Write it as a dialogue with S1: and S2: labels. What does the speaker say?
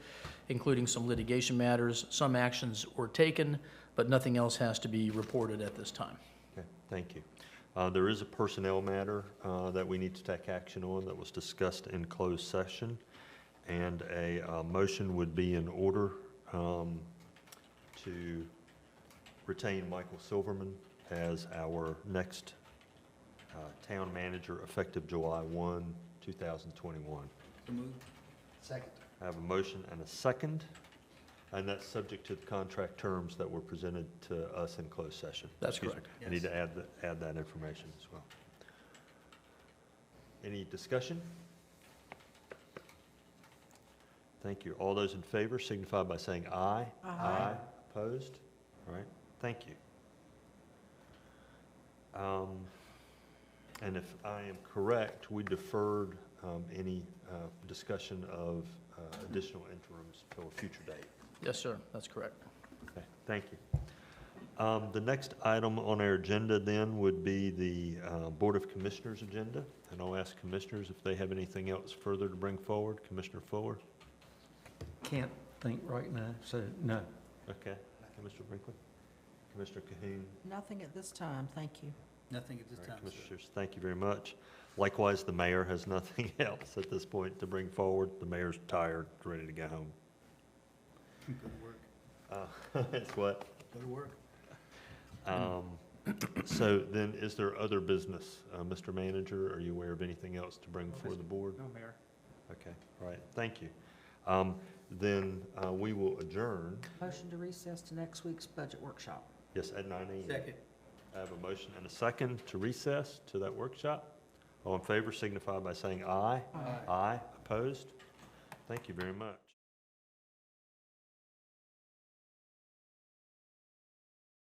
S1: including some litigation matters. Some actions were taken, but nothing else has to be reported at this time.
S2: Okay, thank you. Uh, There is a personnel matter uh, that we need to take action on that was discussed in closed session, and a uh, motion would be in order um, to retain Michael Silverman as our next uh, town manager effective July 1, 2021.
S3: Second.
S2: I have a motion and a second, and that's subject to the contract terms that were presented to us in closed session.
S1: That's
S2: Excuse me.
S1: correct.
S2: I need to add, th- add that information as well. Any discussion? Thank you. All those in favor signify by saying aye.
S4: Aye.
S2: Opposed? All right, thank you. Um, And if I am correct, we deferred um, any uh, discussion of uh, additional interims till a future date.
S1: Yes, sir, that's correct.
S2: Okay, Thank you. Um, The next item on our agenda then would be the uh, Board of Commissioners' agenda. And I'll ask commissioners if they have anything else further to bring forward. Commissioner Fuller?
S3: Can't think right now, so no.
S2: Okay. Commissioner Brinkley? Commissioner Cahoon?
S4: Nothing at this time, thank you.
S5: Nothing at this
S2: All right,
S5: time, sir.
S2: Commissioners, thank you very much. Likewise, the mayor has nothing else at this point to bring forward. The mayor's tired, ready to go home.
S5: Go to work,
S2: Uh, It's what?
S5: go to work.
S2: Um, So then, is there other business? Uh, Mr. Manager, are you aware of anything else to bring before the board?
S5: No, Mayor.
S2: Okay, all right, thank you. Um, Then uh, we will adjourn,
S4: Motion to recess to next week's budget workshop.
S2: yes, at nine AM.
S5: Second.
S2: I have a motion and a second to recess to that workshop. All in favor signify by saying aye.
S5: Aye.
S2: Aye, opposed? Thank you very much.